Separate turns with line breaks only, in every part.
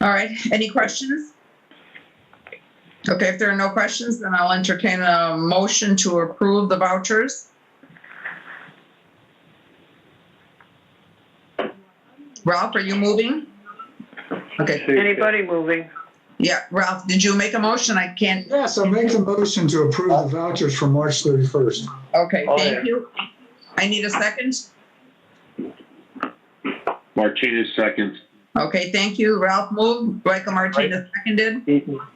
All right, any questions? Okay, if there are no questions, then I'll entertain a motion to approve the vouchers. Ralph, are you moving? Okay,
Anybody moving?
yeah, Ralph, did you make a motion? I can't,
Yes, I'll make the motion to approve the vouchers for March 31st.
okay,
Oh, yeah.
thank you. I need a second.
Martinez seconds.
Okay, thank you. Ralph moved, Michael Martinez seconded.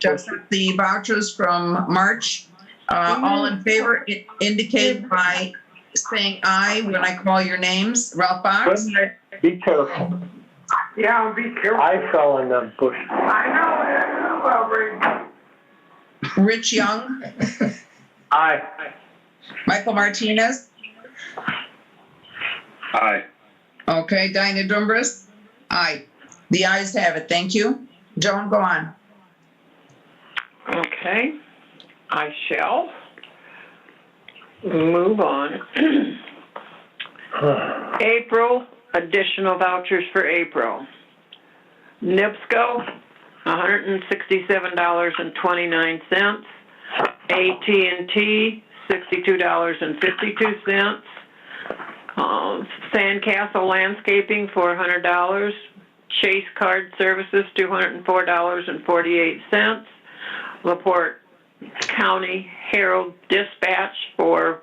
to accept the vouchers from March. Uh, all in favor i- indicate by saying aye when I call your names. Ralph Box?
Be careful.
Yeah, be careful.
I fell in the bush.
I know, that's
Rich Young?
I,
Michael Martinez?
Aye.
Okay, Dinah Dumbrus? Aye. The ayes have it. Thank you. Joan, go on.
Okay, I shall move on. April, additional vouchers for April. NIPSCO, $167.29. at and T, $62.52. Um, Sandcastle Landscaping, $400. Chase Card Services, $204.48. Laporte County Herald Dispatch for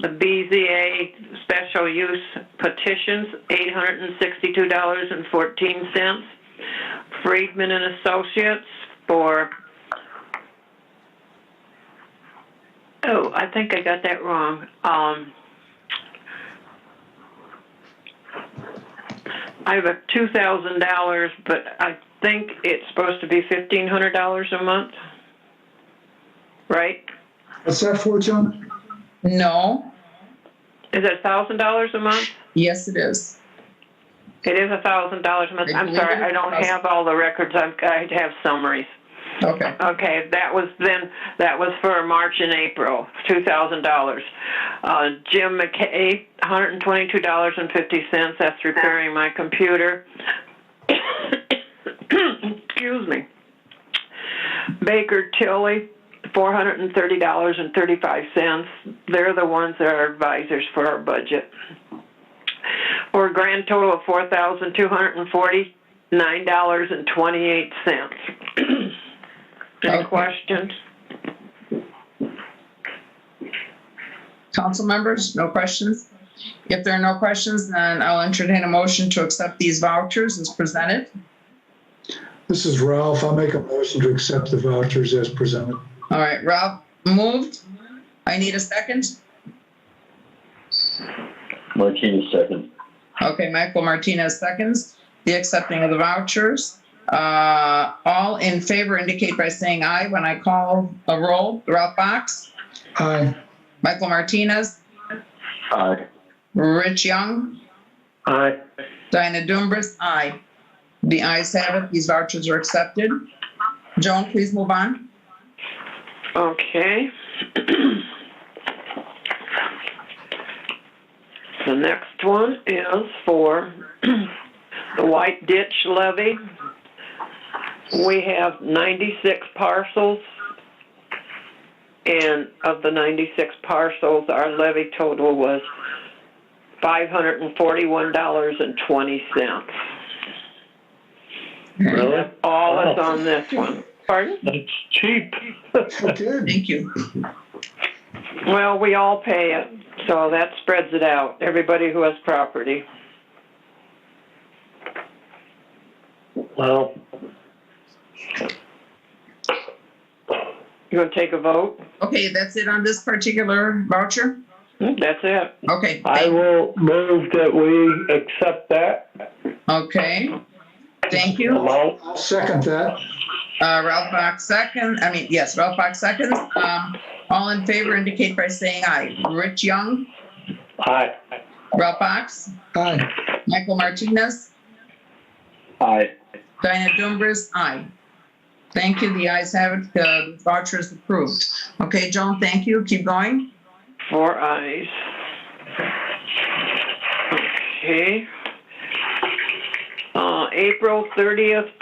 the BZA special use petitions, $862.14. Friedman and Associates for, oh, I think I got that wrong. Um, I have a $2,000, but I think it's supposed to be $1,500 a month, right?
What's that for, Joan?
No.
Is it $1,000 a month?
Yes, it is.
It is a thousand dollars a month. I'm sorry, I don't have all the records. I've, I have summaries.
Okay.
Okay, that was then, that was for March and April, two thousand dollars. Uh, Jim McKay, hundred and twenty-two dollars and fifty cents. That's repairing my computer. Excuse me. Baker Tilly, four hundred and thirty dollars and thirty-five cents. They're the ones that are advisors for our budget. For a grand total of four thousand two hundred and forty-nine dollars and twenty-eight cents. Any
Okay.
questions?
Council members, no questions? If there are no questions, then I'll entertain a motion to accept these vouchers as presented.
This is Ralph. I'll make a motion to accept the vouchers as presented.
All right, Ralph moved. I need a second.
Martinez second.
Okay, Michael Martinez seconds. The accepting of the vouchers. Uh, all in favor indicate by saying aye when I call a roll. Ralph Box,
Aye.
Michael Martinez,
Aye.
Rich Young,
Aye.
Dinah Dumbrus, aye. The ayes have it. These vouchers are accepted. Joan, please move on.
Okay. The next one is for the White Ditch levy. We have 96 parcels. And of the 96 parcels, our levy total was $541.20.
Really?
That's all that's on this one. Pardon?
That's cheap.
Good.
Thank you.
Well, we all pay it, so that spreads it out, everybody who has property.
Well,
You gonna take a vote?
Okay, that's it on this particular voucher?
That's it.
Okay,
I
thank-
will move that we accept that.
okay. Thank you.
amount.
I'll second that.
Uh, Ralph Box second, I mean, yes, Ralph Box seconds. Um, all in favor indicate by saying aye. Rich Young,
Aye.
Ralph Box,
Aye.
Michael Martinez,
Aye.
Diana Dumbrus, aye. Thank you, the ayes have it, the voucher is approved. Okay, Joan, thank you, keep going.
Four eyes. Okay. Uh, April thirtieth,